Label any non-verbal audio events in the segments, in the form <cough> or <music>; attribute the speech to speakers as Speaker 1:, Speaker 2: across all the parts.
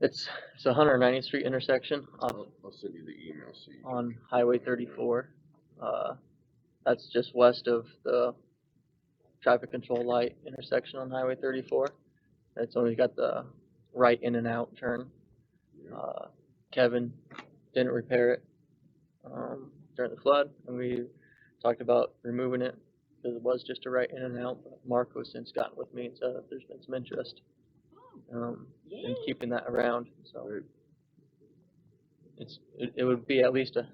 Speaker 1: It's, it's a Hundred Ninety Street intersection off
Speaker 2: I'll, I'll send you the email, so you.
Speaker 1: on Highway thirty-four. Uh, that's just west of the traffic control light intersection on Highway thirty-four. It's only got the right in and out turn.
Speaker 2: Yeah.
Speaker 1: Uh, Kevin didn't repair it, um, during the flood, and we talked about removing it, cause it was just a right in and out. but Mark has since gotten with me and said that there's been some interest, um, in keeping that around, so.
Speaker 2: Right.
Speaker 1: It's, it, it would be at least a,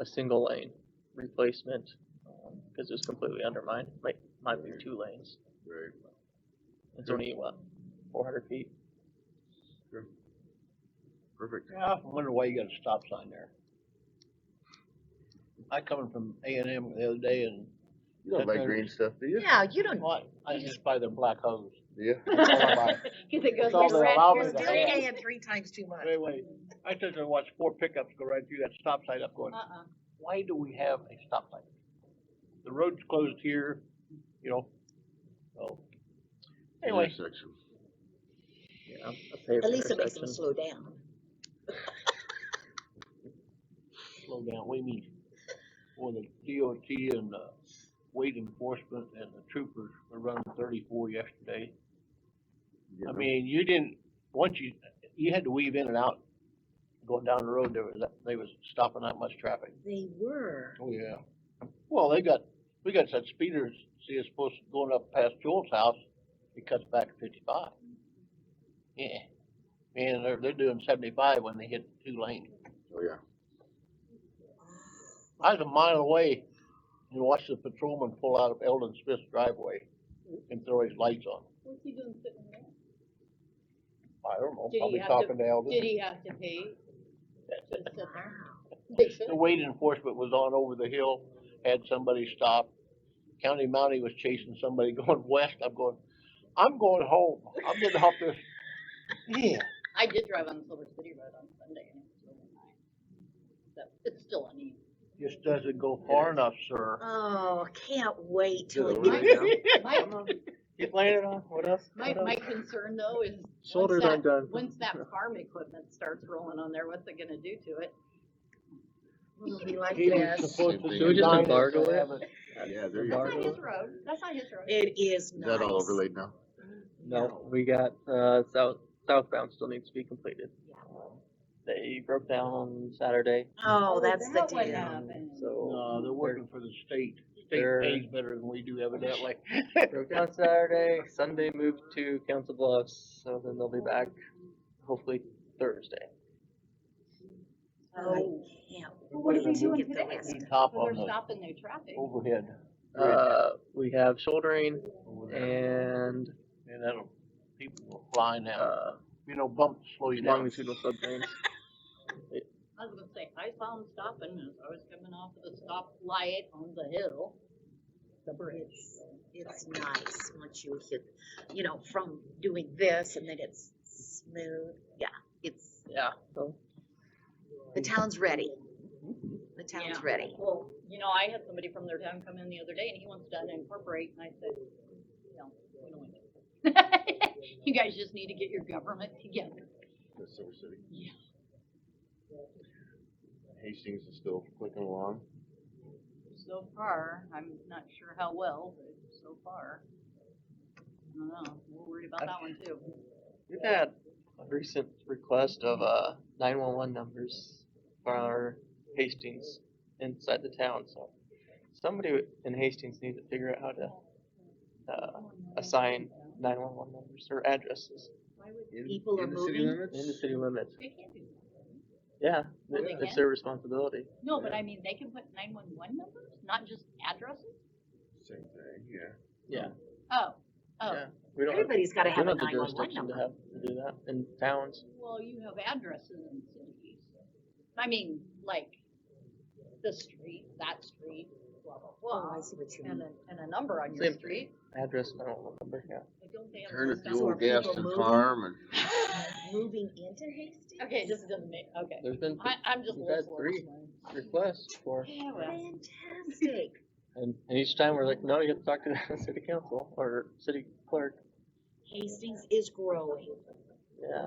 Speaker 1: a single lane replacement, um, cause it's completely undermined, like, might be two lanes.
Speaker 2: Right.
Speaker 1: It's only, what, four hundred feet?
Speaker 2: Perfect.
Speaker 3: Yeah, I often wonder why you got a stop sign there. I coming from A and M the other day and.
Speaker 2: You don't
Speaker 3: That's
Speaker 2: like
Speaker 3: our-
Speaker 2: green stuff, do you?
Speaker 4: No, you
Speaker 1: Oh,
Speaker 4: don't.
Speaker 3: What? I just buy the black hose.
Speaker 2: Yeah.
Speaker 4: Cause it goes
Speaker 3: That's all
Speaker 4: like
Speaker 3: they
Speaker 4: red,
Speaker 3: allow
Speaker 4: you're
Speaker 3: me to
Speaker 4: still
Speaker 3: have.
Speaker 4: paying three times too much.
Speaker 3: Anyway, I sit there and watch four pickups go right through that stop sign up going,
Speaker 4: Uh-uh.
Speaker 3: why do we have a stop sign? The road's closed here, you know, so. Anyway,
Speaker 2: Intersection.
Speaker 1: Yeah, a paved
Speaker 4: At least it makes them
Speaker 1: intersection.
Speaker 4: slow down.
Speaker 3: slow down, we need, well, the DOT and, uh, weight enforcement and the troopers were running thirty-four yesterday.
Speaker 2: Yeah.
Speaker 3: I mean, you didn't, once you, you had to weave in and out, going down the road, there was, that- they was stopping that much traffic.
Speaker 4: They were.
Speaker 3: Oh, yeah. Well, they got, we got such speeders, see, it's supposed to going up past Joel's house, it cuts back to fifty-five. Yeah, man, they're, they're doing seventy-five when they hit two lanes.
Speaker 2: Oh, yeah.
Speaker 3: I was a mile away and watched the patrolman pull out of Eldon Smith's driveway and throw his lights on.
Speaker 5: What's he doing sitting there?
Speaker 3: I don't know,
Speaker 5: Did he
Speaker 3: probably
Speaker 5: have to-
Speaker 3: talking to Eldon.
Speaker 5: Did he have to pay? To sit
Speaker 4: Wow.
Speaker 5: there? They should.
Speaker 3: The weight enforcement was on over the hill, had somebody stop. County Mountie was chasing somebody <laughs> going west. I'm going, I'm going home. I'm getting off this. Yeah.
Speaker 5: I did drive on Silver City Road on Sunday and it was really nice. So it's still uneven.
Speaker 3: Just doesn't go far enough, sir.
Speaker 4: Oh, can't wait till
Speaker 2: Yeah,
Speaker 4: it
Speaker 2: we
Speaker 4: gets.
Speaker 2: did.
Speaker 5: My,
Speaker 6: Get laid on, what else?
Speaker 5: my,
Speaker 6: What else?
Speaker 5: my concern though is. once
Speaker 1: Shoulder
Speaker 5: that-
Speaker 1: undone.
Speaker 5: Once that farm equipment starts rolling on there, what's it gonna do to it?
Speaker 4: It'll be like
Speaker 3: He was
Speaker 4: this.
Speaker 3: supposed
Speaker 2: Same
Speaker 3: to
Speaker 2: thing.
Speaker 3: do
Speaker 2: We just
Speaker 3: nine
Speaker 1: embargo
Speaker 3: and
Speaker 1: it?
Speaker 3: have
Speaker 2: Yeah, there you
Speaker 5: That's
Speaker 2: go.
Speaker 5: not
Speaker 2: Is
Speaker 5: his road. That's not his road.
Speaker 4: It is nice.
Speaker 2: that all overlaid now?
Speaker 1: No, we got, uh, south, southbound still needs to be completed. They broke down on Saturday,
Speaker 4: Oh, that's the
Speaker 5: that what
Speaker 4: deal.
Speaker 5: happened.
Speaker 3: No,
Speaker 1: so.
Speaker 3: they're working for the state. State
Speaker 1: They're-
Speaker 3: pays better than we do evidently. <laughs>
Speaker 1: Broke down Saturday, Sunday moved to Council Bluffs, so then they'll be back hopefully Thursday.
Speaker 4: Oh, I
Speaker 5: Oh.
Speaker 4: can't
Speaker 5: What
Speaker 3: are they
Speaker 4: wait to
Speaker 5: doing
Speaker 4: get the
Speaker 5: today?
Speaker 4: rest.
Speaker 3: Need Top
Speaker 5: So
Speaker 3: on
Speaker 5: they're
Speaker 3: the
Speaker 5: stopping their traffic.
Speaker 3: overhead. bridge
Speaker 1: Uh, we have shouldering
Speaker 3: over there.
Speaker 1: and,
Speaker 3: And that'll, people will fly now.
Speaker 1: uh,
Speaker 3: You know, bumps slow you down.
Speaker 1: longitudinal subdrains.
Speaker 5: I was gonna say, I saw him stopping as I was coming off of the stoplight on the hill. The bridge.
Speaker 4: It's, it's nice once you hit, you know, from doing this and then it's smooth. Yeah, it's,
Speaker 1: Yeah, so
Speaker 4: the town's ready. The town's
Speaker 5: Yeah.
Speaker 4: ready.
Speaker 5: Well, you know, I had somebody from their town come in the other day and he wants to unincorporate and I said, no, we don't want to. You <laughs> guys just need to get your government together.
Speaker 2: That's Silver City.
Speaker 5: Yeah.
Speaker 2: Hastings is still clicking along.
Speaker 5: So far, I'm not sure how well, but so far. I don't know, we're worried about that one too.
Speaker 1: we've had a recent request of, uh, nine-one-one numbers for our Hastings inside the town, so. Somebody in Hastings needs to figure out how to, uh, assign nine-one-one numbers or addresses
Speaker 4: People are
Speaker 2: In the city
Speaker 4: moving.
Speaker 2: limits?
Speaker 1: in the city limits.
Speaker 5: They can't do that.
Speaker 1: Yeah,
Speaker 2: Well,
Speaker 1: it-
Speaker 5: they
Speaker 1: it's their responsibility.
Speaker 5: No, but I mean, they can put nine-one-one numbers, not just addresses?
Speaker 2: Same thing, yeah.
Speaker 5: Oh, oh.
Speaker 1: Yeah. We don't, have-
Speaker 4: Everybody's gotta
Speaker 1: we
Speaker 4: have a
Speaker 1: don't have the
Speaker 4: nine one one
Speaker 1: jurisdiction to
Speaker 4: number.
Speaker 1: have, to do that in towns.
Speaker 5: Well, you have addresses in cities. I mean, like, the street, that street, blah, blah,
Speaker 4: Oh,
Speaker 5: blah,
Speaker 4: I see what you
Speaker 5: and
Speaker 4: mean.
Speaker 5: a, and a number on your
Speaker 1: Same.
Speaker 5: street.
Speaker 1: Address, I don't remember, yeah.
Speaker 5: I don't think
Speaker 2: Turn
Speaker 5: I'm
Speaker 2: it
Speaker 4: So
Speaker 2: fuel,
Speaker 4: are
Speaker 5: gonna-
Speaker 2: gas
Speaker 4: people
Speaker 2: and
Speaker 4: moving?
Speaker 2: farm and.
Speaker 4: uh, Moving into Hastings?
Speaker 5: Okay, this doesn't make, okay.
Speaker 1: There's been
Speaker 5: I, I'm just.
Speaker 1: We've had
Speaker 5: lost
Speaker 1: three.
Speaker 5: one.
Speaker 1: requests for,
Speaker 5: Yeah, well,
Speaker 4: Fantastic.
Speaker 1: and, and each time we're like, no, you have to talk to the <laughs> city council or city clerk.
Speaker 4: Hastings is growing.
Speaker 1: Yeah,